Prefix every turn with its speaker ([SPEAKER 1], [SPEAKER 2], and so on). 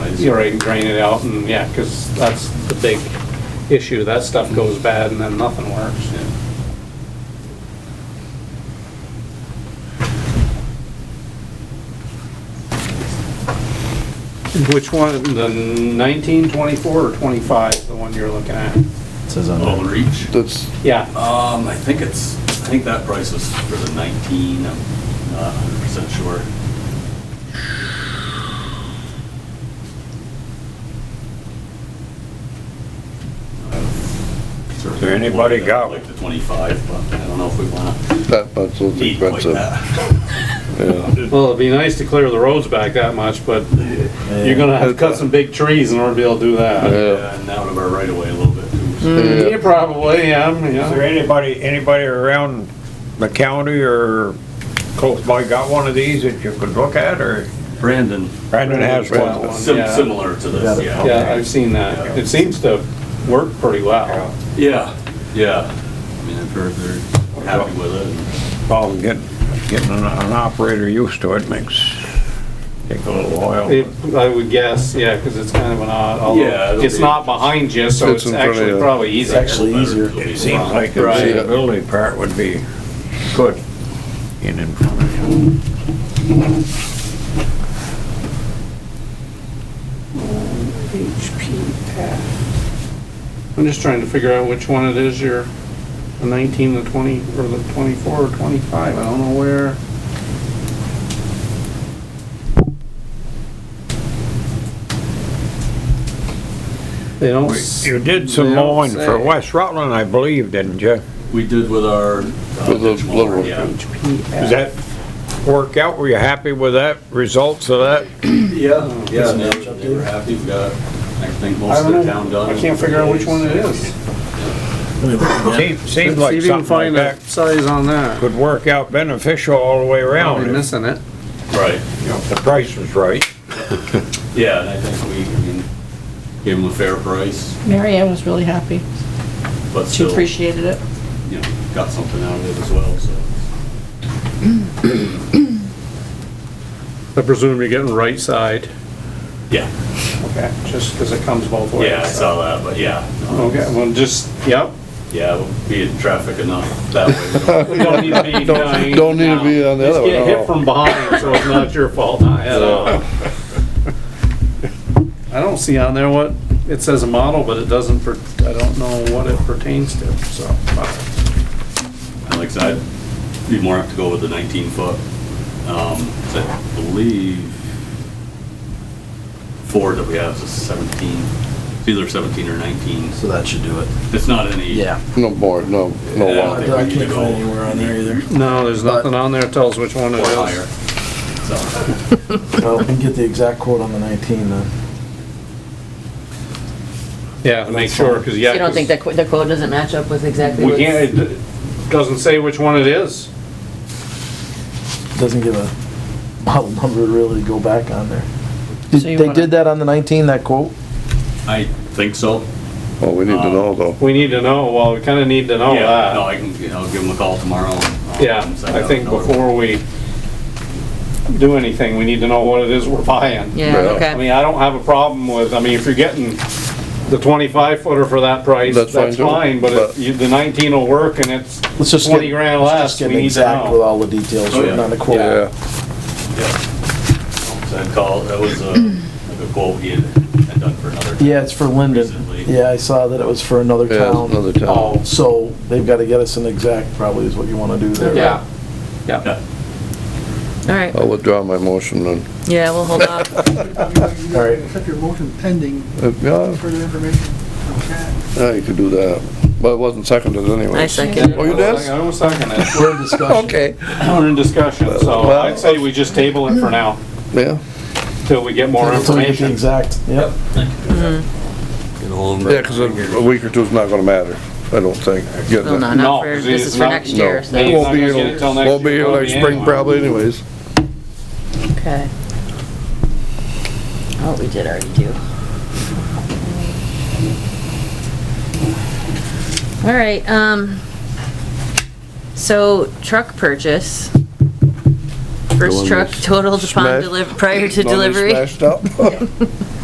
[SPEAKER 1] You're right, drain it out and, yeah, because that's the big issue. That stuff goes bad and then nothing works. Which one, the nineteen, twenty-four, or twenty-five, the one you're looking at?
[SPEAKER 2] Says on
[SPEAKER 3] Oh, the
[SPEAKER 2] there.
[SPEAKER 3] reach?
[SPEAKER 4] That's,
[SPEAKER 1] Yeah,
[SPEAKER 3] Um, I think it's, I think that price was for the 19, I'm not 100% sure.
[SPEAKER 5] Has anybody got
[SPEAKER 3] Like the 25, but I don't know if we want
[SPEAKER 4] that, that's what's
[SPEAKER 3] to eat like
[SPEAKER 4] expensive.
[SPEAKER 3] that.
[SPEAKER 4] Yeah.
[SPEAKER 1] well, it'd be nice to clear the roads back that much, but you're gonna have to cut some big trees in order to be able to do that.
[SPEAKER 4] Yeah.
[SPEAKER 3] Yeah, And out of our right of way a little bit too.
[SPEAKER 1] Yeah, probably, yeah, I'm-
[SPEAKER 5] Is there
[SPEAKER 1] yeah.
[SPEAKER 5] anybody, anybody around the county or close by got one of these that you could look at, or?
[SPEAKER 3] Brandon,
[SPEAKER 5] Brandon has
[SPEAKER 1] Brandon's
[SPEAKER 5] one.
[SPEAKER 1] got
[SPEAKER 3] sim-
[SPEAKER 1] Yeah.
[SPEAKER 3] similar to this, yeah.
[SPEAKER 1] Yeah, I've seen that. It seems to work pretty well.
[SPEAKER 3] Yeah, yeah. I mean, I've heard they're happy with it.
[SPEAKER 5] Well, getting, getting an an operator used to it makes, take a little
[SPEAKER 1] It-
[SPEAKER 5] while.
[SPEAKER 1] I would guess, yeah, because it's kind of an odd,
[SPEAKER 3] Yeah,
[SPEAKER 1] although
[SPEAKER 3] it'll
[SPEAKER 1] it's
[SPEAKER 3] be-
[SPEAKER 1] not behind you, so it's
[SPEAKER 4] It's in front of
[SPEAKER 1] actually
[SPEAKER 4] you.
[SPEAKER 1] probably easier.
[SPEAKER 2] Actually easier.
[SPEAKER 5] It seems like the
[SPEAKER 1] Right.
[SPEAKER 5] visibility part would be good in in front of you.
[SPEAKER 1] I'm just trying to figure out which one it is, your, the 19, the 20, or the 24 or 25, I don't know where. They don't. s-
[SPEAKER 5] You did
[SPEAKER 1] they
[SPEAKER 5] some
[SPEAKER 1] don't
[SPEAKER 5] mowing for
[SPEAKER 1] say.
[SPEAKER 5] West Rutland, I believe, didn't you?
[SPEAKER 3] We did with our. uh,
[SPEAKER 4] With the
[SPEAKER 3] ditch mower,
[SPEAKER 4] little-
[SPEAKER 3] Yeah.
[SPEAKER 1] HPF.
[SPEAKER 5] Does that work out? Were you happy with that, results of that?
[SPEAKER 4] Mm-hmm.
[SPEAKER 3] Yeah, yeah, they were- they were happy, we got, I think most
[SPEAKER 1] I
[SPEAKER 3] of
[SPEAKER 1] don't
[SPEAKER 3] the
[SPEAKER 1] know.
[SPEAKER 3] town done.
[SPEAKER 1] I can't figure out which one it is.
[SPEAKER 5] Seems, seems
[SPEAKER 1] Let's see
[SPEAKER 5] like
[SPEAKER 1] if you can
[SPEAKER 5] something like
[SPEAKER 1] find a
[SPEAKER 5] that
[SPEAKER 1] size on that.
[SPEAKER 5] could work out beneficial all the way around.
[SPEAKER 1] Probably
[SPEAKER 5] if,
[SPEAKER 1] missing it.
[SPEAKER 3] Right,
[SPEAKER 5] you know, if The price was right.
[SPEAKER 3] yeah, and I think we, I mean, gave them a fair price,
[SPEAKER 6] Mary Ann was really happy.
[SPEAKER 3] but
[SPEAKER 6] She
[SPEAKER 3] still, you
[SPEAKER 6] appreciated it.
[SPEAKER 3] know, got something out of it as well, so.
[SPEAKER 1] I presume you're getting right side.
[SPEAKER 3] Yeah,
[SPEAKER 1] Okay, just because it comes both ways.
[SPEAKER 3] yeah, I saw that, but yeah. no,
[SPEAKER 1] Okay, well, just, yep.
[SPEAKER 3] Yeah, we'll be in traffic enough that way. we don't-
[SPEAKER 1] We don't need to be nine.
[SPEAKER 4] don't need to be on the
[SPEAKER 1] Just
[SPEAKER 4] other
[SPEAKER 1] get
[SPEAKER 4] one, no.
[SPEAKER 1] hit from behind, so it's not your fault at all. I don't see on there what, it says a model, but it doesn't, per- I don't know what it pertains to, so.
[SPEAKER 3] And like I said, I'd be more apt to go with the 19 foot. Um, 'cause I believe Ford that we have is a 17, it's either 17 or 19.
[SPEAKER 2] So that should do it.
[SPEAKER 3] It's not any.
[SPEAKER 4] No more, no, no
[SPEAKER 3] Yeah.
[SPEAKER 4] longer.
[SPEAKER 3] think we
[SPEAKER 2] I
[SPEAKER 3] need to
[SPEAKER 2] can't
[SPEAKER 3] go-
[SPEAKER 2] find anywhere on there either.
[SPEAKER 1] No, there's nothing on there that tells which one
[SPEAKER 3] Or
[SPEAKER 1] it
[SPEAKER 3] higher.
[SPEAKER 1] is.
[SPEAKER 3] So,
[SPEAKER 2] Well, we can get the exact quote on the 19 then.
[SPEAKER 1] Yeah, make sure, because yeah.
[SPEAKER 7] You don't think
[SPEAKER 1] 'cause
[SPEAKER 7] the qu- the quote doesn't match up with exactly
[SPEAKER 1] We
[SPEAKER 7] what's?
[SPEAKER 1] can't, it doesn't say which one it is.
[SPEAKER 2] Doesn't give a model number really to go back on there.
[SPEAKER 6] So
[SPEAKER 2] Did-
[SPEAKER 6] you
[SPEAKER 2] They
[SPEAKER 6] wanna-
[SPEAKER 2] did that on the 19, that quote?
[SPEAKER 3] I think so.
[SPEAKER 4] Well, we need to know though.
[SPEAKER 1] We need to know, well, we kind of need to know
[SPEAKER 3] Yeah,
[SPEAKER 1] that.
[SPEAKER 3] No, I can, you know, give them a call tomorrow. and, um,
[SPEAKER 1] Oh, Yeah,
[SPEAKER 3] so
[SPEAKER 1] I
[SPEAKER 3] don't
[SPEAKER 1] think
[SPEAKER 3] know.
[SPEAKER 1] before we do anything, we need to know what it is we're buying.
[SPEAKER 7] Yeah,
[SPEAKER 1] I
[SPEAKER 4] Yeah.
[SPEAKER 7] okay.
[SPEAKER 1] mean, I don't have a problem with, I mean, if you're getting the twenty-five footer for that price,
[SPEAKER 4] That's
[SPEAKER 1] that's
[SPEAKER 4] fine, too.
[SPEAKER 1] fine, but
[SPEAKER 4] But-
[SPEAKER 1] if you- the nineteen will work and it's
[SPEAKER 2] Let's just get-
[SPEAKER 1] twenty grand
[SPEAKER 2] let's
[SPEAKER 1] less,
[SPEAKER 2] just get
[SPEAKER 1] we
[SPEAKER 2] an
[SPEAKER 1] need to
[SPEAKER 2] exact With
[SPEAKER 1] know.
[SPEAKER 2] all the details
[SPEAKER 3] Oh,
[SPEAKER 2] written
[SPEAKER 3] yeah.
[SPEAKER 2] on the quote.
[SPEAKER 4] Yeah,
[SPEAKER 3] Yeah. So I'd call, that was a, like a quote he had had done for another. town
[SPEAKER 2] Yeah, it's for Linden.
[SPEAKER 3] Recently.
[SPEAKER 2] Yeah, I saw that it was for another
[SPEAKER 4] yeah,
[SPEAKER 2] town.
[SPEAKER 4] another town.
[SPEAKER 1] Oh,
[SPEAKER 2] So they've got to get us an exact, probably is what you want to do there.
[SPEAKER 1] yeah,
[SPEAKER 7] All right,
[SPEAKER 4] I'll withdraw my motion then.
[SPEAKER 7] yeah, we'll hold off.
[SPEAKER 2] All right. Oh.
[SPEAKER 8] Accept your motion pending
[SPEAKER 4] Uh, Yeah,
[SPEAKER 8] further information from Chad.
[SPEAKER 4] yeah, you could do that, but it wasn't seconded anyway.
[SPEAKER 7] I second.
[SPEAKER 4] Oh, you did?
[SPEAKER 1] I was second it.
[SPEAKER 2] We're in discussion.
[SPEAKER 4] Okay,
[SPEAKER 1] We're in discussion, so
[SPEAKER 4] Well-
[SPEAKER 1] I'd say we just table it for now,
[SPEAKER 4] yeah,
[SPEAKER 1] till we get more
[SPEAKER 2] Until we get the
[SPEAKER 1] information.
[SPEAKER 2] exact, yep.
[SPEAKER 4] yeah, cause a a week or two's not gonna matter, I don't think. Get
[SPEAKER 7] Well,
[SPEAKER 4] that-
[SPEAKER 7] no,
[SPEAKER 1] No,
[SPEAKER 7] not for,
[SPEAKER 1] 'cause
[SPEAKER 7] this
[SPEAKER 1] it's
[SPEAKER 7] is for
[SPEAKER 1] not-
[SPEAKER 7] next
[SPEAKER 4] no.
[SPEAKER 7] year, so,
[SPEAKER 1] He's
[SPEAKER 4] Won't
[SPEAKER 1] not
[SPEAKER 4] be,
[SPEAKER 1] gonna get it
[SPEAKER 4] here-
[SPEAKER 1] till next
[SPEAKER 4] won't be
[SPEAKER 1] year,
[SPEAKER 4] here
[SPEAKER 1] won't
[SPEAKER 4] like
[SPEAKER 1] be
[SPEAKER 4] spring
[SPEAKER 1] anyway.
[SPEAKER 4] probably anyways.
[SPEAKER 7] okay. Oh, we did already do. All right, um, so truck purchase.
[SPEAKER 4] one
[SPEAKER 7] First truck
[SPEAKER 4] that's
[SPEAKER 7] totaled upon
[SPEAKER 4] smashed-
[SPEAKER 7] deliver, prior to
[SPEAKER 4] Normally
[SPEAKER 7] delivery.
[SPEAKER 4] Smashed up.